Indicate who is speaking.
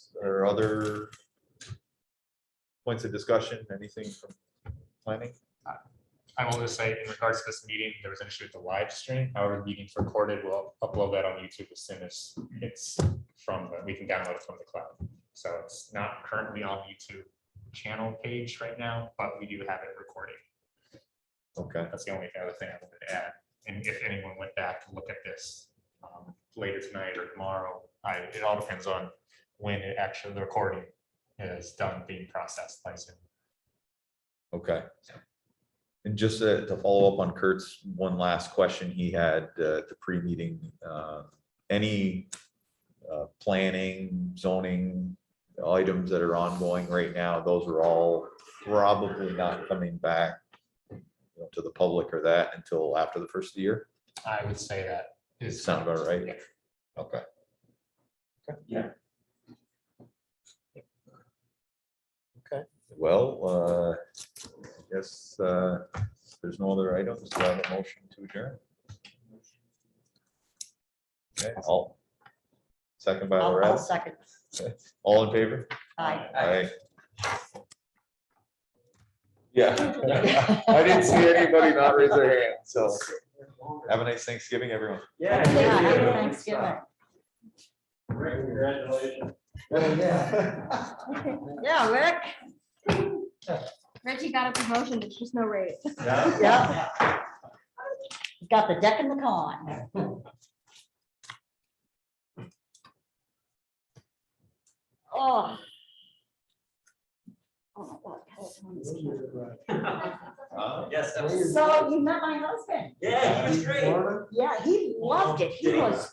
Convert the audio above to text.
Speaker 1: or other points of discussion, anything from planning?
Speaker 2: I will just say, in regards to this meeting, there was an issue with the live stream. However, the meeting's recorded. We'll upload that on YouTube as soon as it's from, the we can download it from the cloud. So it's not currently on YouTube channel page right now, but we do have it recorded.
Speaker 1: Okay,
Speaker 2: That's the only other thing I wanted to add. And if anyone went back to look at this um, later tonight or tomorrow, I, it all depends on when it actually, the recording is done being processed by Zoom.
Speaker 1: okay. And just uh, to to follow up on Kurt's one last question he had uh, at the pre-meeting, uh, any uh, planning, zoning items that are ongoing right now, those are all probably not coming back you know, to the public or that until after the first of the year?
Speaker 2: I would say that is.
Speaker 1: Sound about right?
Speaker 2: Yeah.
Speaker 1: Okay.
Speaker 3: Okay.
Speaker 1: Well, uh, I guess uh, there's no other items. Do I have a motion to adjourn? Okay, all. Second by
Speaker 4: I'll I'll
Speaker 1: Loretta.
Speaker 4: second.
Speaker 1: All in favor?
Speaker 4: Aye.
Speaker 1: Aye.
Speaker 3: Yeah, I didn't see anybody not raise their hand, so.
Speaker 1: Have a nice Thanksgiving, everyone.
Speaker 3: Yeah.
Speaker 4: Yeah, happy Thanksgiving.
Speaker 3: Congratulations. Yeah.
Speaker 4: Yeah, Rick.
Speaker 5: Reggie got a promotion, there's just no raise.
Speaker 4: Yeah. Got the deck and the con. Oh. Oh my God, that was one of those people.
Speaker 3: Yes,
Speaker 4: So you met my husband.
Speaker 3: Yeah, he was great.
Speaker 4: Yeah, he loved it. He was